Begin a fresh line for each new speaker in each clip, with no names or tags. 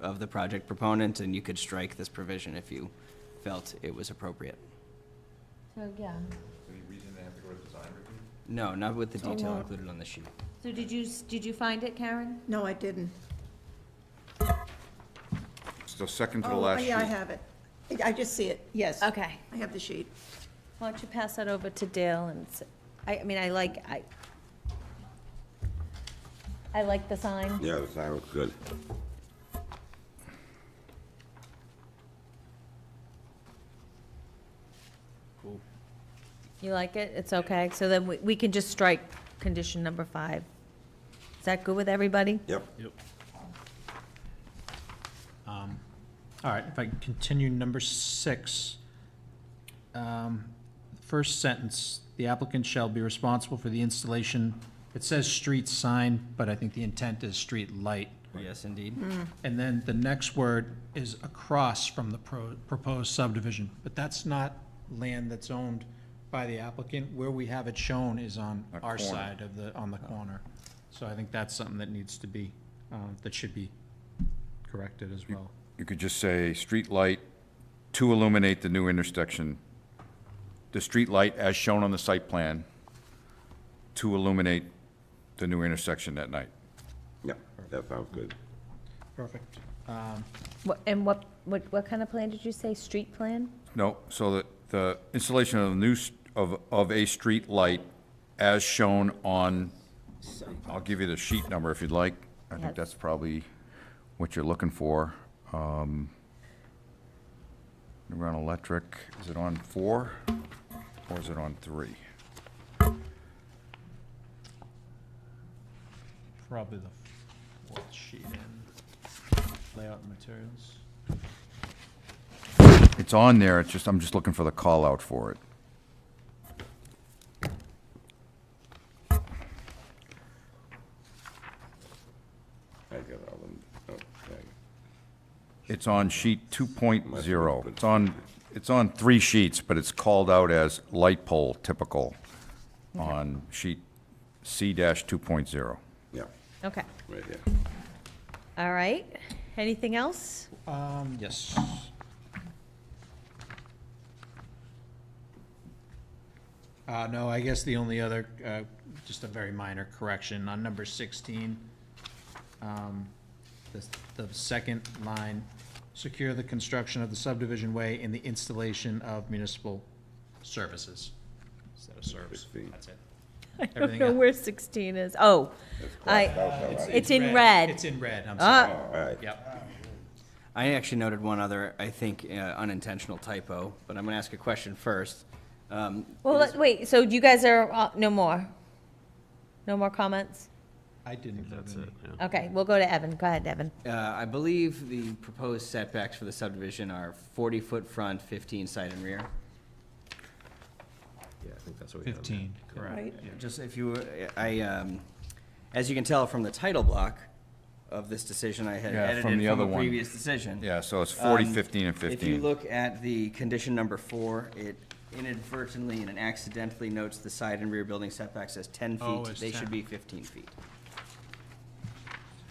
of the project proponent, and you could strike this provision if you felt it was appropriate.
So, yeah.
Any reason they have to go to design review?
No, not with the
So
detail
what-
included on the sheet.
So did you, s- did you find it, Karen?
No, I didn't.
It's the second to the
Oh,
last sheet.
yeah, I have it. I- I just see it, yes.
Okay.
I have the sheet.
Why don't you pass that over to Dale and, s- I, I mean, I like, I, I like the sign.
Yeah, the sign looks good.
Cool.
You like it? It's okay. So then we, we can just strike condition number five. Is that good with everybody?
Yep.
Yep. Um, All right, if I can continue, number six. Um, First sentence, the applicant shall be responsible for the installation, it says street sign, but I think the intent is street light.
Yes, indeed.
Hmm.
And then the next word is across from the pro- proposed subdivision, but that's not land that's owned by the applicant. Where we have it shown is on
A
our
corner. Oh.
side of the, on the corner. So I think that's something that needs to be, um, that should be corrected as well.
You could just say, street light to illuminate the new intersection. The street light as shown on the site plan to illuminate the new intersection at night.
Yep, that sounds good.
Perfect.
What- And what, what, what kind of plan did you say? Street plan?
No, so that the installation of the new, s- of, of a street light as shown on, I'll give you the sheet number if you'd like. I
Yes.
think that's probably what you're looking for. Um, Around electric, is it on four or is it on three?
Probably the fourth sheet in, layout and materials.
It's on there, it's just, I'm just looking for the call out for it.
I got all them. Oh, Okay.
It's on sheet 2.0. It's on, it's on three sheets, but it's called out as light pole typical on sheet C-2.0.
Yep,
Okay,
right here.
all right. Anything else?
Um, yes. Uh, no, I guess the only other, uh, just a very minor correction on number sixteen. Um, the, the second line, secure the construction of the subdivision way and the installation of municipal services. Instead of serves,
Sixteen.
that's it.
I don't
Everything
know
else.
where sixteen is. Oh, I, it's in red.
It's in red, I'm sorry.
ah,
All right.
Yep,
I actually noted one other, I think, uh, unintentional typo, but I'm going to ask a question first. Um,
well, let- wait, so you guys are, uh, no more? No more comments?
I didn't have any.
Okay, we'll go to Evan. Go ahead, Evan.
uh, I believe the proposed setbacks for the subdivision are 40-foot front, 15 side and rear.
Yeah, I think that's what we have.
Fifteen, correct.
Right.
Just if you, I, um, as you can tell from the title block of this decision, I had
Yeah, from
edited
the
from
other
a
one.
previous decision.
Yeah, so it's 40,
Um,
15, and
If you
15.
look at the condition number four, it inadvertently and accidentally notes the side and rear building setbacks as ten
Oh,
feet.
it's
They should
10.
be fifteen feet.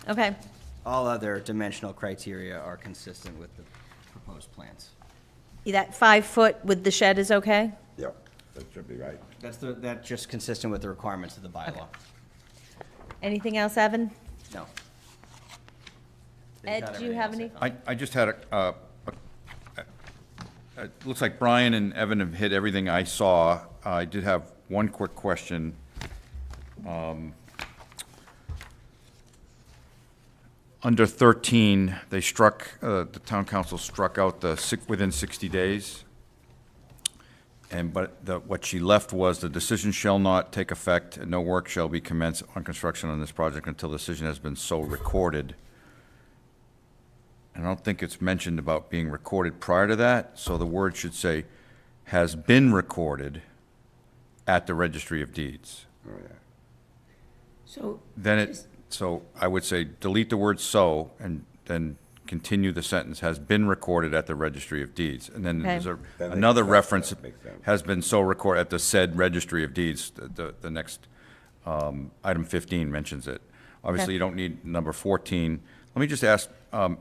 Okay,
All other dimensional criteria are consistent with the proposed plans.
that five foot with the shed is okay?
Yep, that should be right.
That's the, that's just consistent with the requirements of the bylaw.
Anything else, Evan?
No.
Ed, do you have any-
I, I just had a, uh, a- a- it looks like Brian and Evan have hit everything I saw. I did have one quick question. Um, Under 13, they struck, uh, the town council struck out the sick, within 60 days. And but the, what she left was the decision shall not take effect and no work shall be commenced on construction on this project until the decision has been so recorded. And I don't think it's mentioned about being recorded prior to that, so the word should say has been recorded at the registry of deeds.
Oh, yeah.
So,
Then it, so I would say delete the word so and then continue the sentence, has been recorded at the registry of deeds. And then there's a,
Okay.
That makes
another
sense,
reference,
that makes sense.
has been so recorded at the said registry of deeds, the- the, the next, um, item fifteen mentions it. Obviously, you don't need number fourteen. Let me just ask, um,